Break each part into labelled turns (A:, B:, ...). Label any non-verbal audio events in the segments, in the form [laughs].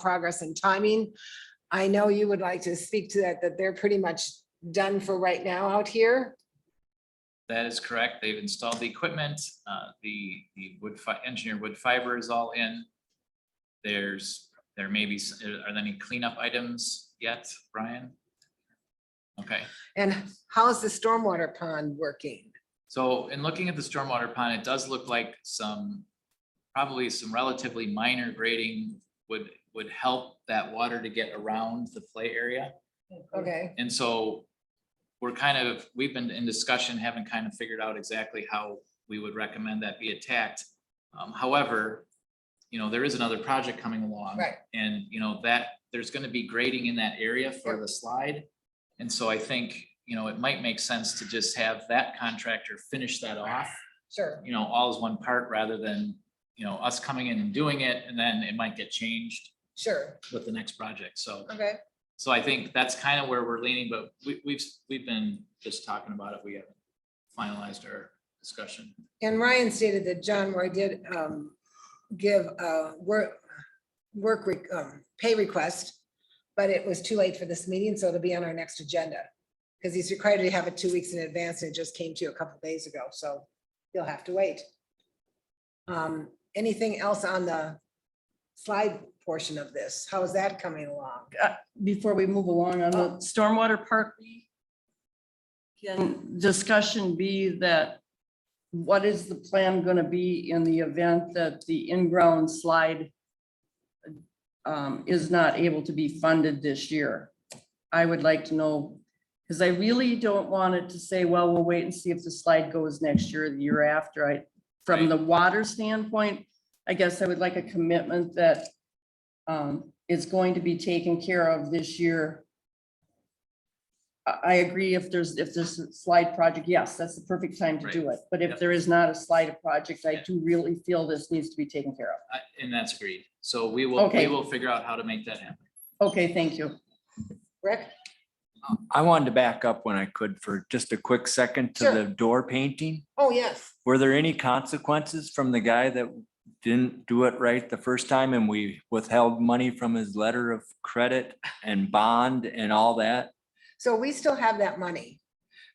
A: progress and timing. I know you would like to speak to that, that they're pretty much done for right now out here.
B: That is correct. They've installed the equipment. Uh, The, the wood fi, engineered wood fiber is all in. There's, there may be, s- are there any cleanup items yet, Brian? Okay,
A: And how is the stormwater pond working?
B: so in looking at the stormwater pond, it does look like some, probably some relatively minor grading would, would help that water to get around the play area.
A: Okay,
B: And so we're kind of, we've been in discussion, haven't kind of figured out exactly how we would recommend that be attacked. Um, however, you know, there is another project coming along.
A: Right.
B: And, you know, that, there's gonna be grading in that area for the slide. And so I think, you know, it might make sense to just have that contractor finish that off,
A: sure.
B: you know, all as one part rather than, you know, us coming in and doing it and then it might get changed
A: Sure,
B: with the next project. So
A: okay,
B: so I think that's kind of where we're leaning, but we, we've, we've been just talking about it. We haven't finalized our discussion.
A: and Ryan stated that John Roy did um give a work work re- um pay request, but it was too late for this meeting, so it'll be on our next agenda. Because he's required to have it two weeks in advance, and it just came to you a couple days ago, so you'll have to wait. Um, anything else on the slide portion of this? How is that coming along?
C: before we move along on the Uh, stormwater part B, can discussion be that what is the plan going to be in the event that the in-ground slide um, is not able to be funded this year? I would like to know, because I really don't want it to say, well, we'll wait and see if the slide goes next year, or the year after. I, from
B: Right.
C: the water standpoint, I guess I would like a commitment that um, is going to be taken care of this year. I, I agree if there's, if there's a slide project, yes, that's the perfect time to do it. But
B: Yep.
C: if there is not a slide project, I
B: Yeah.
C: do really feel this needs to be taken care
B: I- And that's agreed. So we will, we
C: Okay.
B: will figure out how to make that happen.
C: of. Okay, thank you.
A: Rick?
D: I wanted to back up when I could for just a quick second to
A: Sure.
D: the door painting.
A: Oh, yes.
D: Were there any consequences from the guy that didn't do it right the first time and we withheld money from his letter of credit and bond and all that?
A: So we still have that money.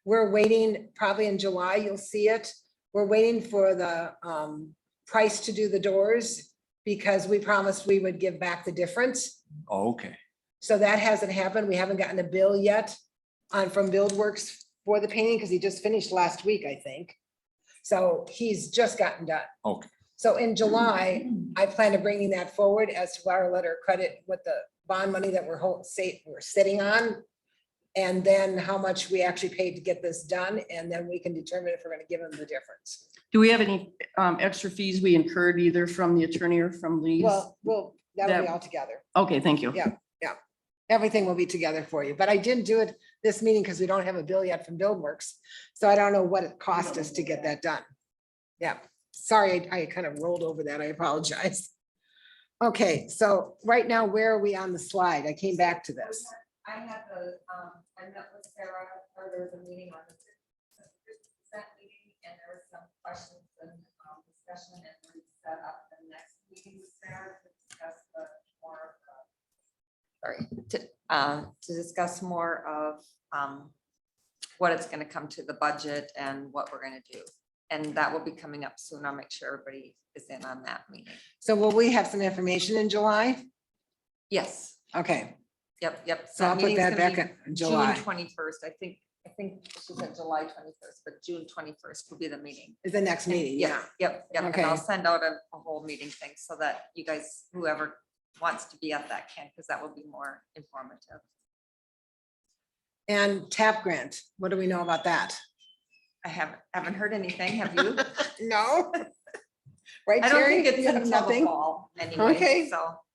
A: We're waiting, probably in July, you'll see it. We're waiting for the um price to do the doors because we promised we would give back the difference.
D: Oh, Okay,
A: So that hasn't happened. We haven't gotten a bill yet on from Build Works for the painting because he just finished last week, I think. So he's just gotten done.
D: Okay.
A: So in July, I plan to bringing that forward as to our letter of credit with the bond money that we're holding, say, we're sitting on. And then how much we actually paid to get this done, and then we can determine if we're gonna give them the difference.
C: Do we have any um, extra fees we incurred either from the attorney or from Lee's?
A: Well, well, that'll be
C: That-
A: all together.
C: Okay, thank you.
A: Yeah. Everything will be together for you, but I didn't do it this meeting because we don't have a bill yet from Buildworks, So I don't know what it cost us to get that done. Yeah, sorry, I I kind of rolled over that. I apologize. Okay, so right now, where are we on the slide? I came back to this.
E: I had the, um, I met with Sarah, or there was a meeting on the percent meeting, and there was some questions and, um, discussion, and we set up the next meeting with Sarah to discuss the more of the. Sorry, to, um, to discuss more of, um, what it's gonna come to the budget and what we're gonna do. And that will be coming up soon. I'll make sure everybody is in on that meeting.
A: So will we have some information in July?
E: Yes,
A: Okay,
E: yep, yep.
A: so I'll put
E: meeting's
A: that back
E: gonna be
A: in
E: June
A: July.
E: twenty-first, I think, I think she said July twenty-first, but June twenty-first will be the meeting.
A: Is the next meeting, yeah.
E: Yep, yep, and I'll
A: Okay.
E: send out a, a whole meeting thing so that you guys, whoever wants to be at that can, because that will be more informative.
A: And TAP grant, what do we know about that?
E: I haven't, haven't heard anything, have
A: [laughs]
E: you?
A: No? Right,
E: I don't
A: Terry?
E: think it's
A: You have
E: until the
A: nothing?
E: fall anyway,
A: Okay.
E: so.
A: All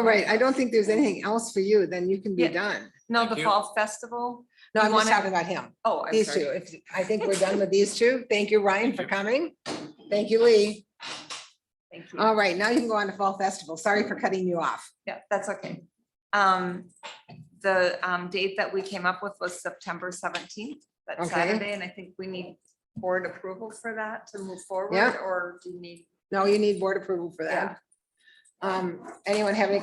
A: Oh, right, I don't think there's anything else for you, then you can be
E: Yeah.
A: done.
E: No,
B: Thank
E: the
B: you.
E: fall festival,
A: No,
E: You
A: I'm just
E: wanna-
A: talking about him,
E: oh, I'm
A: these
E: sorry.
A: two. If, I think we're done with these two. Thank you, Ryan, for coming. Thank you, Lee.
E: Thank you.
A: All right, now you can go on to Fall Festival. Sorry for cutting you off.
E: Yeah, that's okay. Um, the, um, date that we came up with was September seventeenth, that's
A: Okay.
E: Saturday, and I think we need board approval for that to move forward,
A: Yeah.
E: or do you need?
A: No, you need board approval for that. Um, anyone have any